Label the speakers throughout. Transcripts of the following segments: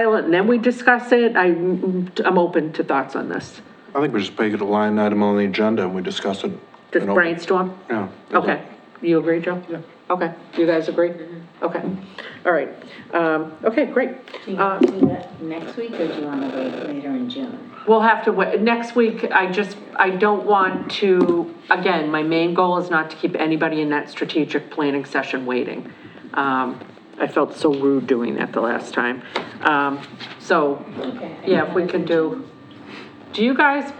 Speaker 1: it and then we discuss it? I, I'm open to thoughts on this.
Speaker 2: I think we just make it a line item on the agenda and we discuss it.
Speaker 1: Just
Speaker 2: in open-
Speaker 1: brainstorm?
Speaker 2: Yeah.
Speaker 1: Okay, you agree, Joe? Yeah. Okay, you guys agree? Okay, all right, um, okay, great.
Speaker 3: Do you
Speaker 1: Uh,
Speaker 3: want to do that next week, or do you want to wait later in June?
Speaker 1: We'll have to wait, next week, I just, I don't want to, again, my main goal is not to keep anybody in that strategic planning session waiting. Um, I felt so rude doing that the last time. Um, so, yeah, if we can do, do you guys,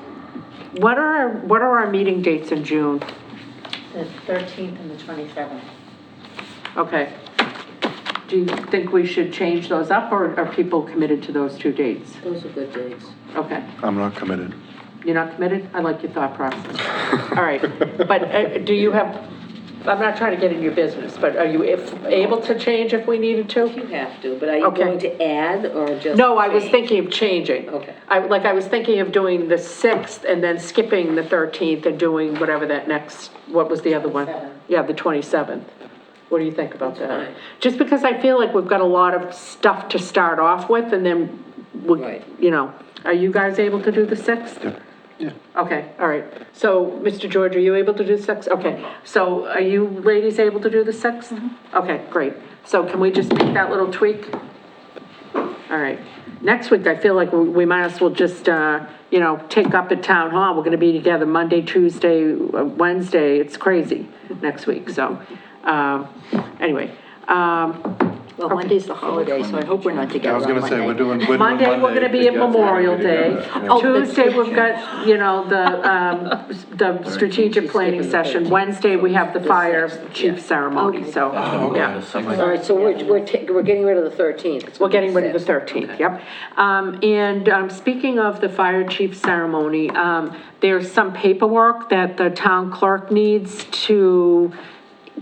Speaker 1: what are, our- what are our meeting dates in June?
Speaker 3: The 13th and the 27th.
Speaker 1: Okay. Do you think we should change those up, or are people committed to those two dates?
Speaker 3: Those are good dates.
Speaker 1: Okay.
Speaker 2: I'm not committed.
Speaker 1: You're not committed? I like your thought process. All right, but uh, do you have, I'm not trying to get in your business, but are you if- able to change if we needed to?
Speaker 4: You have to, but are you
Speaker 1: Okay.
Speaker 4: going to add or just?
Speaker 1: No, I was
Speaker 4: change?
Speaker 1: thinking of changing.
Speaker 4: Okay.
Speaker 1: I, like, I was thinking of doing the 6th and then skipping the 13th and doing whatever that next, what was the other one?
Speaker 3: 27th.
Speaker 1: Yeah, the 27th. What do you think about that?
Speaker 4: fine.
Speaker 1: Just because I feel like we've got a lot of stuff to start off with and then, we,
Speaker 4: Right.
Speaker 1: you know, are you guys able to do the 6th?
Speaker 2: Yeah.
Speaker 1: Okay, all right. So, Mr. George, are you able to do the sixth? Okay, so are you ladies able to do the sixth? Okay, great. So can we just make that little tweak? All right. Next week, I feel like we we might as well just, uh, you know, take up at town hall. We're gonna be together Monday, Tuesday, uh, Wednesday. It's crazy next week, so, um, anyway. Um,
Speaker 4: Well, Monday's the holiday, so I hope we're not
Speaker 2: I
Speaker 4: together
Speaker 2: was gonna say, we're doing. we're doing
Speaker 1: Monday, we're gonna be at
Speaker 2: together,
Speaker 1: Memorial Day. Oh,
Speaker 2: together, yeah.
Speaker 1: Tuesday, we've got, you know, the, um, the strategic planning session. Wednesday, we have the fire chief ceremony, so,
Speaker 2: Oh,
Speaker 1: yeah.
Speaker 4: All right, so we're, we're, ta- we're getting rid of the 13th.
Speaker 1: We're getting rid of the thirteenth, yep. Um, and, um, speaking of the fire chief ceremony, um, there's some paperwork that the town clerk needs to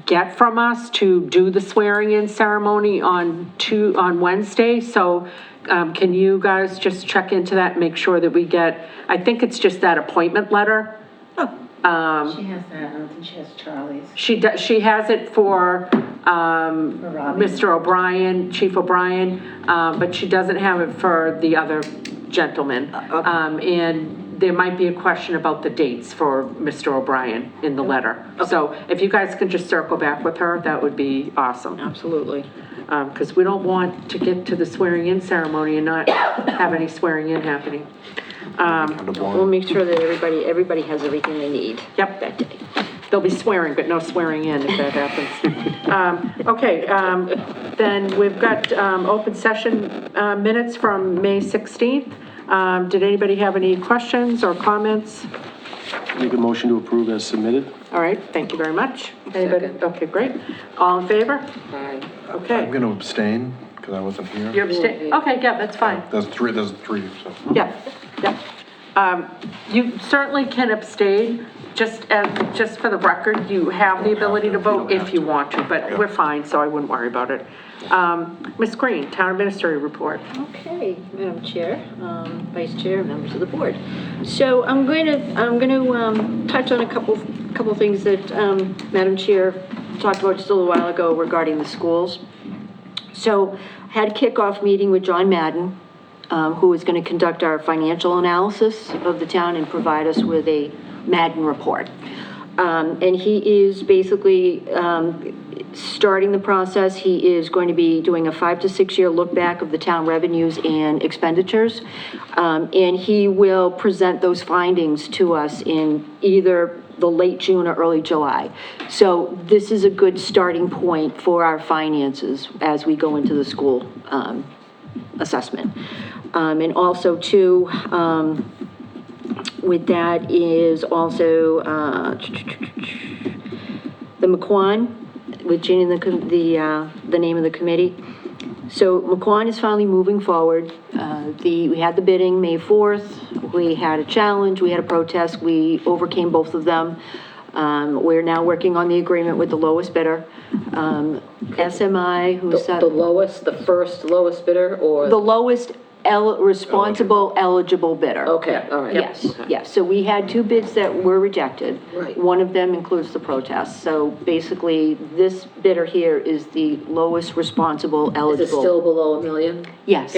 Speaker 1: get from us to do the swearing-in ceremony on two, on Wednesday, so, um, can you guys just check into that, make sure that we get, I think it's just that appointment letter.
Speaker 3: She has that, I don't think she has Charlie's,
Speaker 1: She, do- she has it for, um,
Speaker 3: for Robbie.
Speaker 1: Mr. O'Brien, Chief O'Brien, uh, but she doesn't have it for the other gentleman. Um, And there might be a question about the dates for Mr. O'Brien in the letter. So if you guys can just circle back with her, that would be awesome.
Speaker 4: Absolutely.
Speaker 1: Because we don't want to get to the swearing-in ceremony and not have any swearing-in happening.
Speaker 2: Kind of
Speaker 4: We'll
Speaker 2: boring.
Speaker 4: make sure that everybody, everybody has everything they need.
Speaker 1: Yep.
Speaker 4: That day.
Speaker 1: They'll be swearing, but no swearing in if that happens. Um, Okay, um, then we've got um, open session uh, minutes from May 16th. Um, Did anybody have any questions or comments?
Speaker 5: Make a motion to approve as submitted.
Speaker 1: All right, thank you very much. Anybody? Okay, great. All in favor?
Speaker 4: Fine.
Speaker 2: I'm
Speaker 1: Okay.
Speaker 2: gonna abstain, because I wasn't here.
Speaker 1: You're abstaining? Okay, yeah, that's fine.
Speaker 2: There's three, there's three, so.
Speaker 1: Yeah, yeah. Um, You certainly can abstain, just, as just for the record, you have the ability to vote if you want to, but we're fine, so I wouldn't worry about it. Um, Ms. Green, Town Administrator Report.
Speaker 4: Okay, Madam Chair, um, Vice Chair, members of the board. So I'm going to, I'm going to touch on a couple, couple things that um, Madam Chair talked about just a little while ago regarding the schools. So had kickoff meeting with John Madden, um, who is going to conduct our financial analysis of the town and provide us with a Madden report. Um, And he is basically um, starting the process. He is going to be doing a five to six-year look-back of the town revenues and expenditures. Um, And he will present those findings to us in either the late June or early July. So this is a good starting point for our finances as we go into the school um, assessment. Um, And also, too, um, with that is also uh, the McQuan, with changing the, com- the, uh, the name of the committee. So McQuan is finally moving forward. Uh, The, we had the bidding May 4th, we had a challenge, we had a protest, we overcame both of them. Um, We're now working on the agreement with the lowest bidder. Um, SMI, who's.
Speaker 6: The the lowest, the first lowest bidder, or?
Speaker 4: The lowest el, responsible eligible bidder.
Speaker 6: Okay, all right.
Speaker 4: Yes, yes, so we had two bids that were rejected.
Speaker 6: Right.
Speaker 4: One of them includes the protest, so basically, this bidder here is the lowest responsible
Speaker 6: Is it
Speaker 4: eligible.
Speaker 6: still below a million?
Speaker 4: Yes.